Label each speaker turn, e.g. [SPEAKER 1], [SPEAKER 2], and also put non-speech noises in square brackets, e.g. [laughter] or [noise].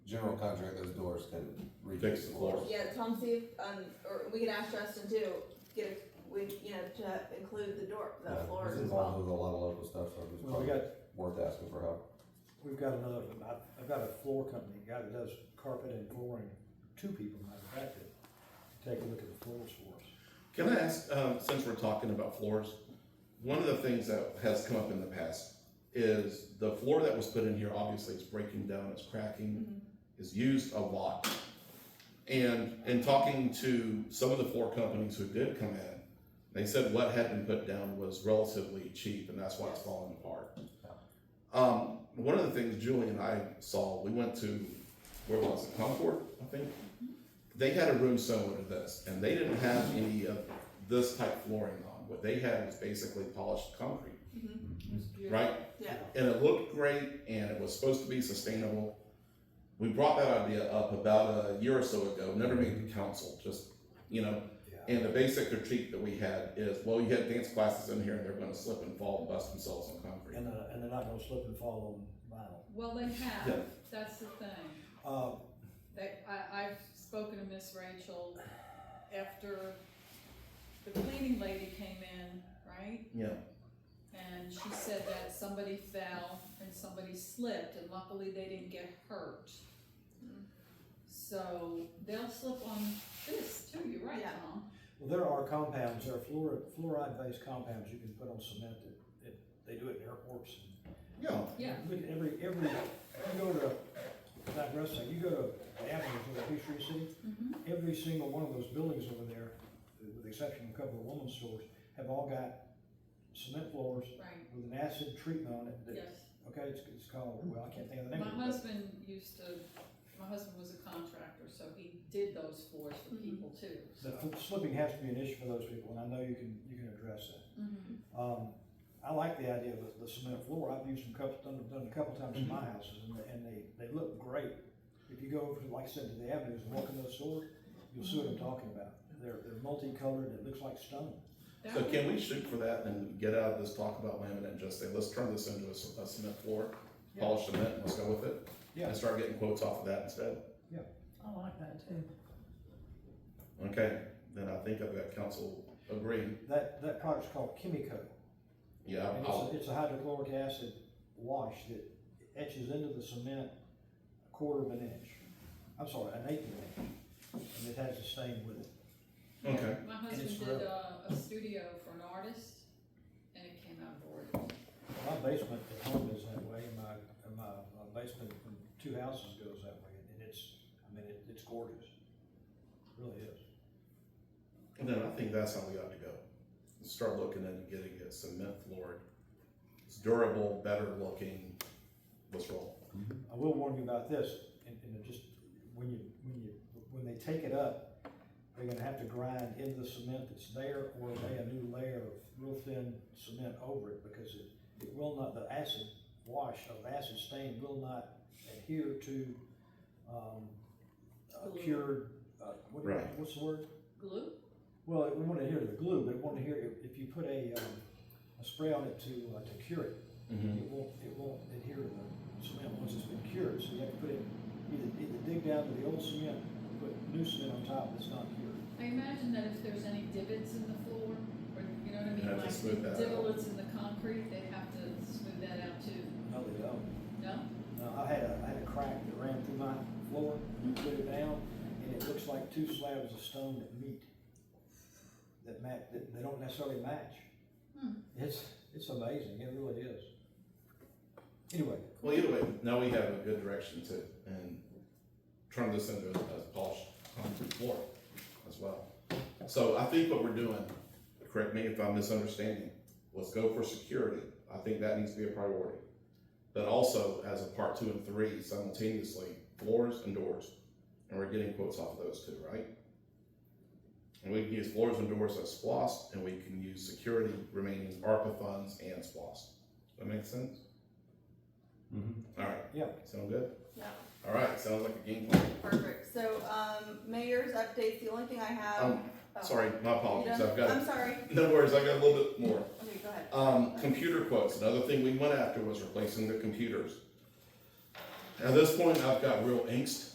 [SPEAKER 1] general contract, those doors can refix
[SPEAKER 2] Fix the
[SPEAKER 1] the
[SPEAKER 2] floor.
[SPEAKER 1] floors.
[SPEAKER 3] Yeah, Tom, see if, um, or we could ask Justin too, get, a we, you know, to include the door, the
[SPEAKER 1] Yeah,
[SPEAKER 3] floors
[SPEAKER 1] he's
[SPEAKER 3] as
[SPEAKER 1] involved
[SPEAKER 3] well.
[SPEAKER 1] with a lot of local stuff, so it's
[SPEAKER 4] Well, we got,
[SPEAKER 1] probably worth asking for help.
[SPEAKER 4] we've got another, I- I've got a floor company, a guy that does carpet and flooring, two people matter of fact, that take a look at the floors for us.
[SPEAKER 2] Can I ask, um, since we're talking about floors, one of the things that has come up in the past is the floor that was put in here, obviously it's breaking down, it's cracking, is used a lot. And in talking to some of the floor companies who did come in, they said what had been put down was relatively cheap and that's why it's falling apart. Um, one of the things Julie and I saw, we went to, where was it, Concord, I think? they had a room similar to this, and they didn't have any of this type flooring on. What they had was basically polished concrete, right?
[SPEAKER 3] Yeah,
[SPEAKER 2] And it looked great, and it was supposed to be sustainable. We brought that idea up about a year or so ago, never made the council, just, you know,
[SPEAKER 4] Yeah.
[SPEAKER 2] and the basic critique that we had is, well, you had dance classes in here, and they're gonna slip and fall and bust themselves on concrete.
[SPEAKER 4] And, uh, and they're not gonna slip and fall on vinyl.
[SPEAKER 5] Well, they have,
[SPEAKER 2] Yeah.
[SPEAKER 5] that's the thing.
[SPEAKER 4] Uh,
[SPEAKER 5] They, I, I've spoken to Miss Rachel after the cleaning lady came in, right?
[SPEAKER 2] Yeah,
[SPEAKER 5] And she said that somebody fell and somebody slipped and luckily they didn't get hurt. So they'll slip on this too, you're right,
[SPEAKER 3] Yeah.
[SPEAKER 5] Tom.
[SPEAKER 4] well, there are compounds, there are fluoride, fluoride-based compounds you can put on cement that, that, they do it in airports and
[SPEAKER 2] yeah,
[SPEAKER 5] Yeah,
[SPEAKER 4] Look at every, every, you go to, not wrestling, you go to Athens or Peachtree City,
[SPEAKER 5] Mm-hmm.
[SPEAKER 4] every single one of those buildings over there, with the exception of a couple of women's stores, have all got cement floors
[SPEAKER 5] right,
[SPEAKER 4] with an acid treatment on it that,
[SPEAKER 5] yes.
[SPEAKER 4] okay, it's, it's called, well, I can't think of the
[SPEAKER 5] My
[SPEAKER 4] name of it.
[SPEAKER 5] husband used to, my husband was a contractor, so he did those floors for
[SPEAKER 3] Mhm.
[SPEAKER 5] people too, so.
[SPEAKER 4] but- But slipping has to be an issue for those people, and I know you can, you can address that.
[SPEAKER 5] Mhm.
[SPEAKER 4] Um, I like the idea of the- the cement floor, I've used them couple, done, done a couple times in my houses, and, they- and they, they look great. If you go over, to, like I said, to the avenues and walk in those stores, you'll see what I'm talking about. They're, they're multicolored, it looks like stone.
[SPEAKER 5] That
[SPEAKER 2] So
[SPEAKER 5] would-
[SPEAKER 2] can we shoot for that and get out of this talk about laminate and just say, let's turn this into a s- a cement floor, polished cement, let's go with it?
[SPEAKER 4] Yeah.
[SPEAKER 2] And start getting quotes off of that instead?
[SPEAKER 6] I like that too.
[SPEAKER 2] Okay, then I think I've got council agreeing.
[SPEAKER 4] That, that product's called Kimiko,
[SPEAKER 2] Yeah,
[SPEAKER 4] and it's,
[SPEAKER 2] I'll,
[SPEAKER 4] a- it's a hydrochloric acid wash that etches into the cement a quarter of an inch. I'm sorry, an eighth of an inch, and it has a stain with it.
[SPEAKER 2] okay,
[SPEAKER 5] My
[SPEAKER 4] And it's
[SPEAKER 5] husband
[SPEAKER 4] real.
[SPEAKER 5] did a, a studio for an artist, and it came out gorgeous.
[SPEAKER 4] My basement at home is that way, and my, and my, my basement from two houses goes that way, and it's, I mean, it, it's gorgeous. It Really is.
[SPEAKER 2] then I think that's how we ought to go. Start looking at getting it cement floored. It's durable, better looking, let's roll.
[SPEAKER 4] I will warn you about this, and, and it just, when you, when you, when they take it up, they're gonna have to grind into the cement that's there, or lay a new layer of real thin cement over it, because it, it will not, the acid wash of acid stain will not adhere to, um, uh,
[SPEAKER 5] Glue.
[SPEAKER 4] cured, uh, what, do you-
[SPEAKER 2] Right.
[SPEAKER 4] what's the word?
[SPEAKER 5] Glue?
[SPEAKER 4] Well, it want to adhere to the glue, but it want to adhere, if- if you put a, um, a spray on it to, uh, to cure it, it won't, it won't adhere to the cement once it's been cured, so you have to put it, either, either dig down to the old cement, put new cement on top that's not cured.
[SPEAKER 5] I imagine that if there's any divots in the floor, or, you know what I
[SPEAKER 2] Have
[SPEAKER 5] mean,
[SPEAKER 2] to
[SPEAKER 5] like
[SPEAKER 2] smooth that out.
[SPEAKER 5] divots in the concrete, they have to smooth that out too,
[SPEAKER 4] No, they don't.
[SPEAKER 5] no?
[SPEAKER 4] No, I had a, I had a crack that ran through my floor, you put it down, and it looks like two slabs of stone that meet, that match, that they don't necessarily match.
[SPEAKER 5] Hmm.
[SPEAKER 4] It's, it's amazing, it really is. Anyway,
[SPEAKER 2] Well, either way, now we have a good direction to, and turn this into a a polished concrete floor as well. So I think what we're doing, correct me if I'm misunderstanding, let's go for security. I think that needs to be a priority. But also as a part two and three simultaneously, floors and doors. And we're getting quotes off of those two, right? And we can use floors and doors as SPOS, and we can use security remaining ARPA funds and SPOS. That make sense? All right.
[SPEAKER 4] Yeah.
[SPEAKER 2] Sound good?
[SPEAKER 3] yeah,
[SPEAKER 2] All right, sounds like a game plan.
[SPEAKER 3] perfect. So, um, mayor's updates, the only thing I have.
[SPEAKER 2] Um,
[SPEAKER 3] oh,
[SPEAKER 2] sorry, my
[SPEAKER 3] you
[SPEAKER 2] apologies.
[SPEAKER 3] done?
[SPEAKER 2] I've got
[SPEAKER 3] I'm sorry.
[SPEAKER 2] [laughs] no worries. I've got a little bit more.
[SPEAKER 3] Okay, go ahead.
[SPEAKER 2] Um, computer quotes. Another thing we went after was replacing the computers. At this point, I've got real angst